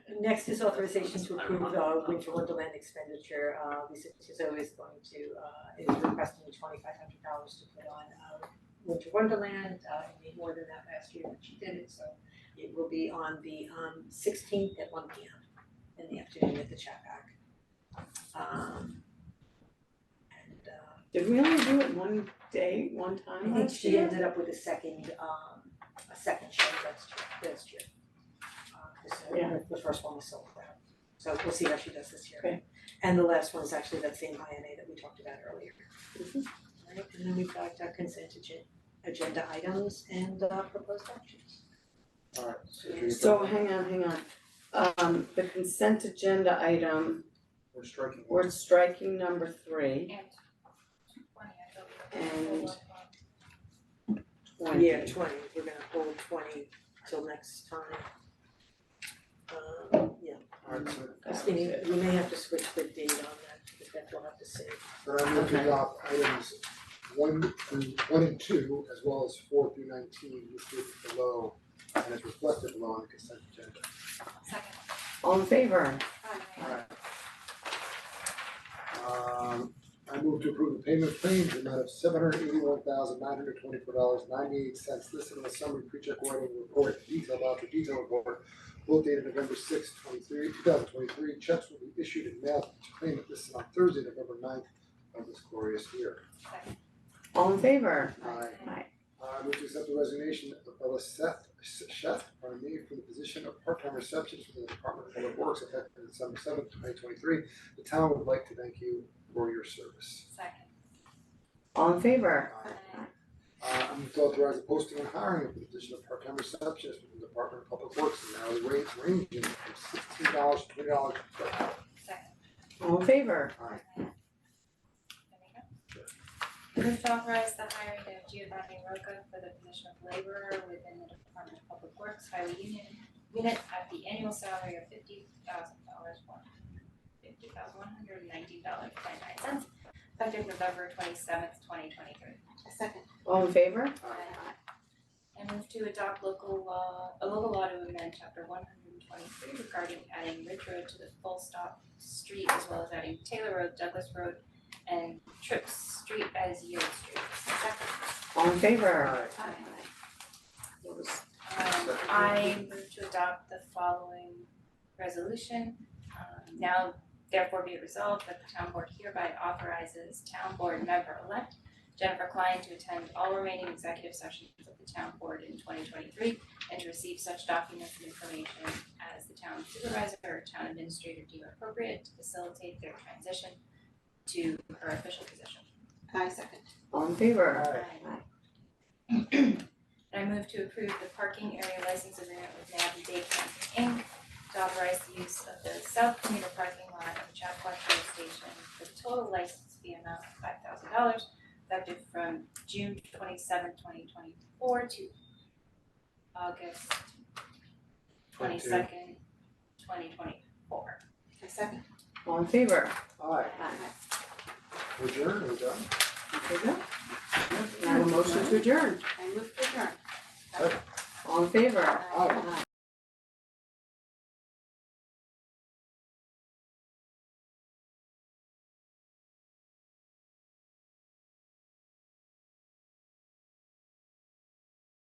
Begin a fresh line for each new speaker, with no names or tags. next is authorization to approve our winter wonderland expenditure, uh Lisa Tizow is going to uh is requesting twenty five hundred dollars to put on uh winter wonderland, uh it made more than that last year when she did it, so it will be on the um sixteenth at one P M in the afternoon at the Chapac. Um and uh
Did we only do it one day, one
I
time
think
last
she
year?
ended up with a second, um, a second show last year, last year. Uh, 'cause, uh,
Yeah.
the first one was sold out, so we'll see how she does this year.
Okay.
And the last one is actually that same INA that we talked about earlier.
Mhm.
Right, Mm-hmm. and then we've got uh, consent agen- agenda items and uh proposed actions.
Alright, so do you-
So hang on, hang on. Um, the consent agenda item,
We're striking one.
we're striking number three,
And twenty, I thought we
And-
were.
twenty.
Yeah, twenty, we're gonna hold twenty till next time. Um, yeah,
Alright, so
That was
we may,
it.
we may have to switch the date on that, because that we'll have to see.
then I'm going to
Okay.
adopt items one through, one and two, as well as four through nineteen, listed below and is reflected below on the consent agenda.
Second.
All in favor?
Alright. Um, I move to approve the payment of claims in the amount of seven hundred eighty-one thousand nine hundred twenty-four dollars ninety-eight cents listed in the summary pre-check writing report, detail voucher detail report, both dated November sixth, twenty-three, two thousand twenty-three, checks will be issued and mailed to claimant listed on Thursday, November 9th of this glorious year.
All in favor?
Aye.
Aye.
I move to accept Uh, the resignation of Ella Seth, Chef, pardon me, from the position of part-time receptionist for the Department of Public Works effective December seventh, twenty twenty-three. The town would like to thank you for your service.
Second.
All in favor?
Uh, I'm going to authorize the posting and hiring of the position of part-time receptionist for the Department of Public Works and hourly rates ranging from sixteen dollars to twenty dollars per hour.
Second.
All in favor?
Aye.
There we go. Move to authorize the hiring of Giovanni Rocca for the position of laborer within the Department of Public Works Highway Union Unit at the annual salary of fifty thousand dollars one, fifty thousand one hundred and nineteen dollars twenty-nine cents, effective November twenty-seventh, twenty twenty-three. second.
All in favor?
Aye.
And move to adopt local law, a local law to amend chapter one hundred and twenty-three regarding adding Ridge Road to the full stop street as well as adding Taylor Road, Douglas Road, and Tripp Street as yield streets.
All in favor?
Aye.
What was-
Um, I move to adopt the following resolution. Um, Now therefore be it resolved that the town board hereby authorizes town board member-elect Jennifer Klein to attend all remaining executive sessions of the town board in twenty twenty-three and to receive such documents and information as the town supervisor or town administrator deem appropriate to facilitate their transition to her official position.
I second.
All in favor?
Aye.
And I move to approve the parking area license agreement with Navi Day Camping Inc. to authorize the use of the south commuter parking lot of the Chappaqua Train Station for the total license fee amount of five thousand dollars effective from June twenty seventh, twenty twenty four to August twenty second, twenty twenty four.
I second.
All in favor?
Aye.
Aye.
We're adjourned, we're done.
Okay, good. Now a motion to adjourn.
I move to adjourn.
All in favor?
Aye.
Aye.